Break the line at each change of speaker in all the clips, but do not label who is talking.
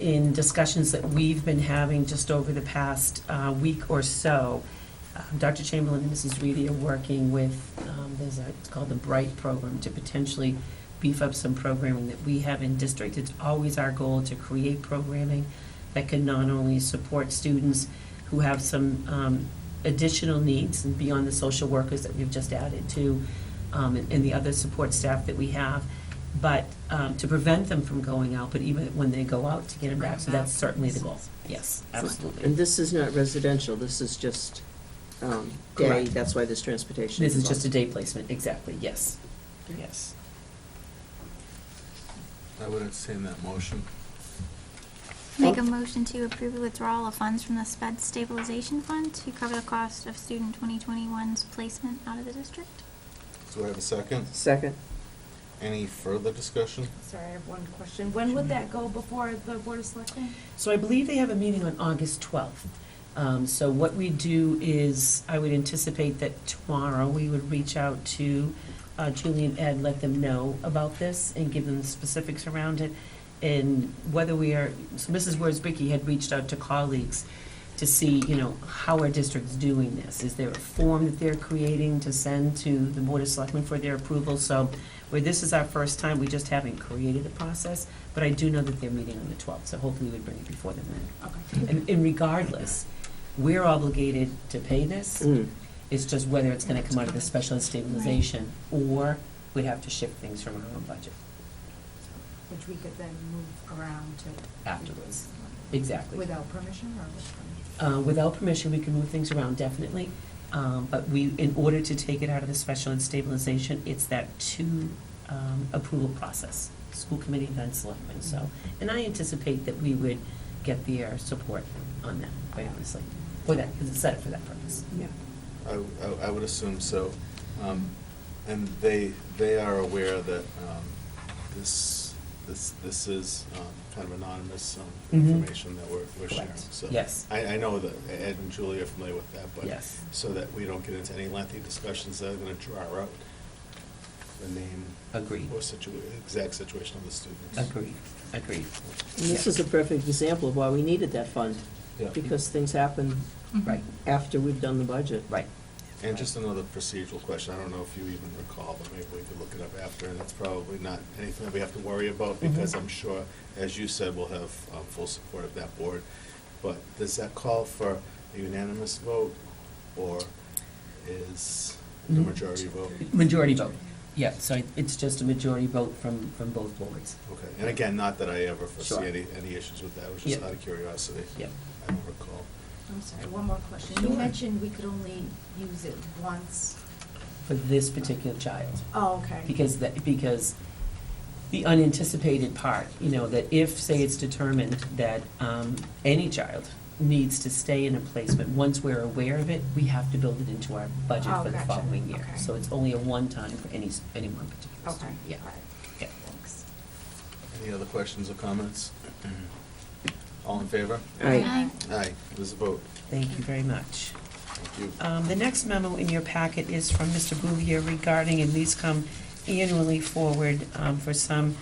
in discussions that we've been having just over the past uh, week or so, um, Dr. Chamberlain and Mrs. Reedy are working with, um, there's a, it's called the Bright Program, to potentially beef up some programming that we have in district. It's always our goal to create programming that can not only support students who have some um, additional needs and beyond the social workers that we've just added to, um, and and the other support staff that we have, but um, to prevent them from going out, but even when they go out, to get them back. So that's certainly the goal. Yes,
And
absolutely.
this is not residential, this is just um, day,
Correct.
that's why there's transportation.
This is just a
involved.
day placement, exactly, yes, yes.
I would entertain that motion.
Make a motion to approve the withdrawal of funds from the sped stabilization fund to cover the cost of student 2021's placement out of the district.
Do I have a second?
Second,
Any further discussion?
Sorry, I have one question. When would that go before the Board of Selectmen?
So I believe they have a meeting on August 12th. Um, So what we do is, I would anticipate that tomorrow, we would reach out to uh, Julie and Ed, let them know about this and give them the specifics around it. And whether we are, so Mrs. Worsbicky had reached out to colleagues to see, you know, how our district's doing this. Is there a form that they're creating to send to the Board of Selectmen for their approval? So where this is our first time, we just haven't created a process, but I do know that they're meeting on the 12th, so hopefully we bring it before them then.
Okay.
And- And regardless, we're obligated to pay this,
Mm.
it's just whether it's gonna come out of the special ed stabilization, or we'd have to shift things from our own budget
Which we could then move around to.
afterwards. Exactly.
Without permission or with permission?
Uh, Without permission, we can move things around definitely, um, but we, in order to take it out of the special ed stabilization, it's that two um, approval process, school committee then selectmen, so. And I anticipate that we would get their support on that, quite honestly, for that, because it's set for that purpose.
Yeah.
I, I- I would assume so. Um, And they, they are aware that um, this, this, this is um, kind of anonymous um,
Mhm.
information that we're, we're sharing.
Correct.
So
Yes.
I, I know that Ed and Julie are familiar with that, but.
Yes.
So that we don't get into any lengthy discussions that are going to draw out the name.
Agreed.
Or situa, exact situation of the students.
Agreed, agreed.
And this is a perfect example of why we needed that fund,
Yeah.
because things happen
Mm-hmm.
Right,
after we've done the budget.
right.
And just another procedural question, I don't know if you even recall, but maybe we could look it up after, and it's probably not anything that we have to worry about, because
Mhm.
I'm sure, as you said, we'll have um, full support of that board. But does that call for a unanimous vote, or is the
Mhm.
majority vote?
Majority vote, yeah, so it's just a majority vote from, from both boards.
Okay, and again, not that I ever
Sure.
foresee any, any issues with that, it was just
Yeah.
out of curiosity.
Yeah.
I don't recall.
I'm sorry, one more question. You
Sure.
mentioned we could only use it once.
For this particular child.
Oh, okay.
Because that, because the unanticipated part, you know, that if, say, it's determined that um, any child needs to stay in a placement, once we're aware of it, we have to build it into our budget
Oh,
for the
gotcha.
following year.
Okay.
So it's only a one-time for any, s- any one particular
Okay.
student. Yeah,
All right.
yeah.
Thanks.
Any other questions or comments? All in favor?
Aye.
Uh,
Aye.
Aye, there's a vote.
Thank you very much.
Thank you.
Um, The next memo in your packet is from Mr. Bouvier regarding, and these come annually forward um, for some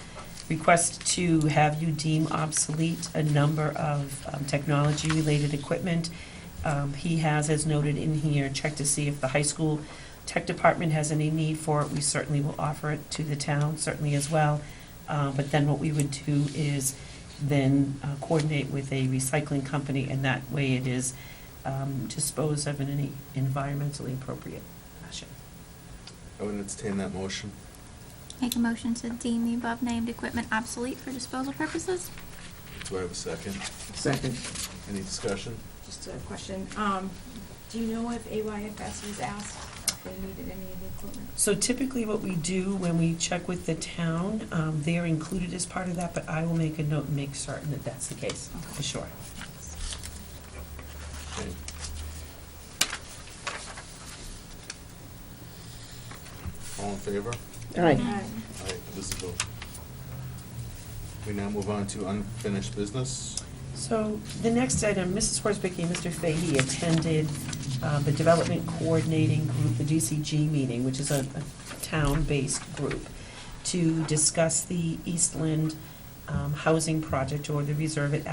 request to have you deem obsolete a number of um, technology-related equipment. Um, He has, as noted in here, checked to see if the high school tech department has any need for it. We certainly will offer it to the town, certainly as well. Uh, But then what we would do is then uh, coordinate with a recycling company, and that way it is um, dispose of in any environmentally appropriate fashion.
I would entertain that motion.
Make a motion to deem the above named equipment obsolete for disposal purposes.
Do I have a second?
Second.
Any discussion?
Just a question. Um, do you know if AYFS was asked if they needed any of the equipment?
So typically what we do when we check with the town, um, they're included as part of that, but I will make a note and make certain that that's the case, for sure.
Okay. All in favor?
Aye.
Aye.
Aye, this is a vote. We now move on to unfinished business.
So the next item, Mrs. Horsbicky and Mr. Fahey attended uh, the Development Coordinating Group, the DCG meeting, which is a a town-based group, to discuss the Eastland um, Housing Project or the Reserve at